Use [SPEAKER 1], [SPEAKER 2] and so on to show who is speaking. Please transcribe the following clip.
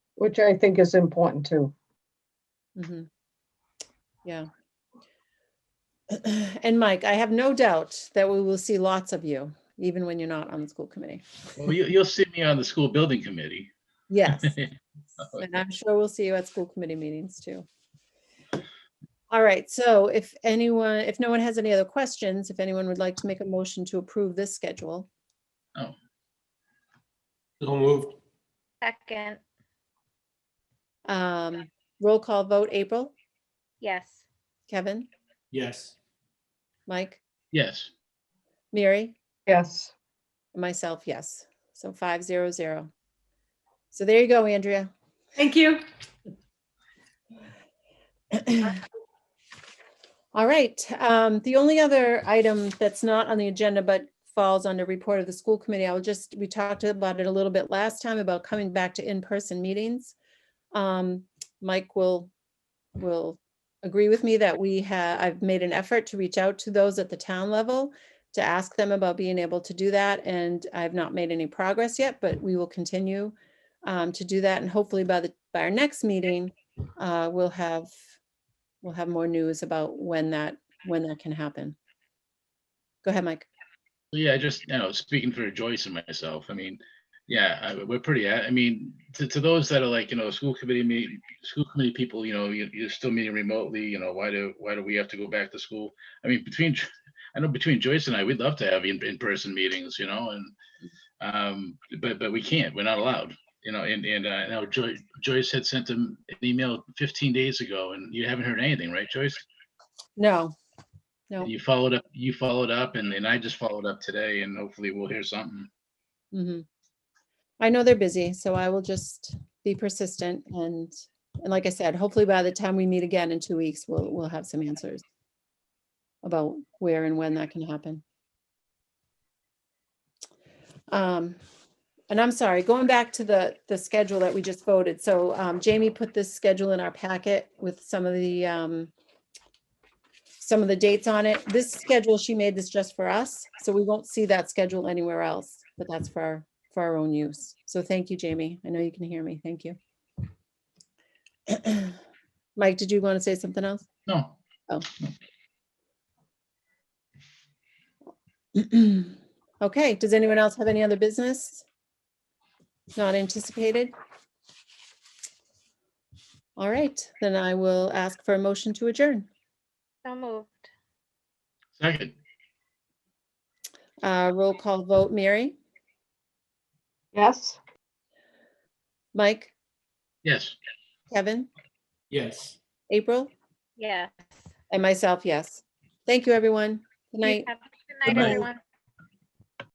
[SPEAKER 1] which I think is important too.
[SPEAKER 2] Mhm. Yeah. And Mike, I have no doubt that we will see lots of you, even when you're not on the school committee.
[SPEAKER 3] Well, you, you'll see me on the school building committee.
[SPEAKER 2] Yes. And I'm sure we'll see you at school committee meetings too. All right, so if anyone, if no one has any other questions, if anyone would like to make a motion to approve this schedule,
[SPEAKER 4] So moved.
[SPEAKER 5] Second,
[SPEAKER 2] um, roll call vote, April,
[SPEAKER 5] yes.
[SPEAKER 2] Kevin,
[SPEAKER 4] Yes.
[SPEAKER 2] Mike,
[SPEAKER 3] Yes,
[SPEAKER 2] Mary?
[SPEAKER 1] Yes,
[SPEAKER 2] And Myself, yes. So five zero zero. So there you go, Andrea.
[SPEAKER 6] Thank you.
[SPEAKER 2] All right, um, the only other item that's not on the agenda but falls under report of the school committee, I will just, we talked about it a little bit last time about coming back to in-person meetings. Um, Mike will, will agree with me that we have, I've made an effort to reach out to those at the town level to ask them about being able to do that, and I've not made any progress yet, but we will continue um, to do that, and hopefully by the, by our next meeting, uh, we'll have we'll have more news about when that, when that can happen. Go ahead, Mike.
[SPEAKER 3] yeah, just, you know, speaking for Joyce and myself, I mean, yeah, I- we're pretty, a- I mean, to, to those that are like, you know, school committee meet, school committee people, you know, you, you're still meeting remotely, you know, why do, why do we have to go back to school? I mean, between, Jo- I know between Joyce and I, we'd love to have in, in-person meetings, you know, and, um, but, but we can't, we're not allowed, you know, and, and, uh, I know Joyce, Joyce had sent them an email fifteen days ago and you haven't heard anything, right, Joyce?
[SPEAKER 2] No, Nope.
[SPEAKER 3] You followed up, you followed up and then I just followed up today and hopefully we'll hear something.
[SPEAKER 2] mhm. I know they're busy, so I will just be persistent and, and like I said, hopefully by the time we meet again in two weeks, we'll, we'll have some answers about where and when that can happen. Um, and I'm sorry, going back to the, the schedule that we just voted. So, um, Jamie put this schedule in our packet with some of the, um, some of the dates on it. This schedule, she made this just for us, so we won't see that schedule anywhere else, but that's for, our for our own use. So thank you, Jamie. I know you can hear me. Thank you. Mike, did you want to say something else?
[SPEAKER 3] No,
[SPEAKER 2] Okay, does anyone else have any other business? Not anticipated? All right, then I will ask for a motion to adjourn.
[SPEAKER 5] So moved.
[SPEAKER 3] second,
[SPEAKER 2] Uh, roll call vote, Mary,
[SPEAKER 1] yes.
[SPEAKER 2] Mike,
[SPEAKER 3] yes.
[SPEAKER 2] Kevin,
[SPEAKER 4] Yes.
[SPEAKER 2] April?
[SPEAKER 5] Yes.
[SPEAKER 2] And myself, yes. Thank you, everyone. Good night.
[SPEAKER 5] Have a Good night,
[SPEAKER 3] night.
[SPEAKER 5] everyone.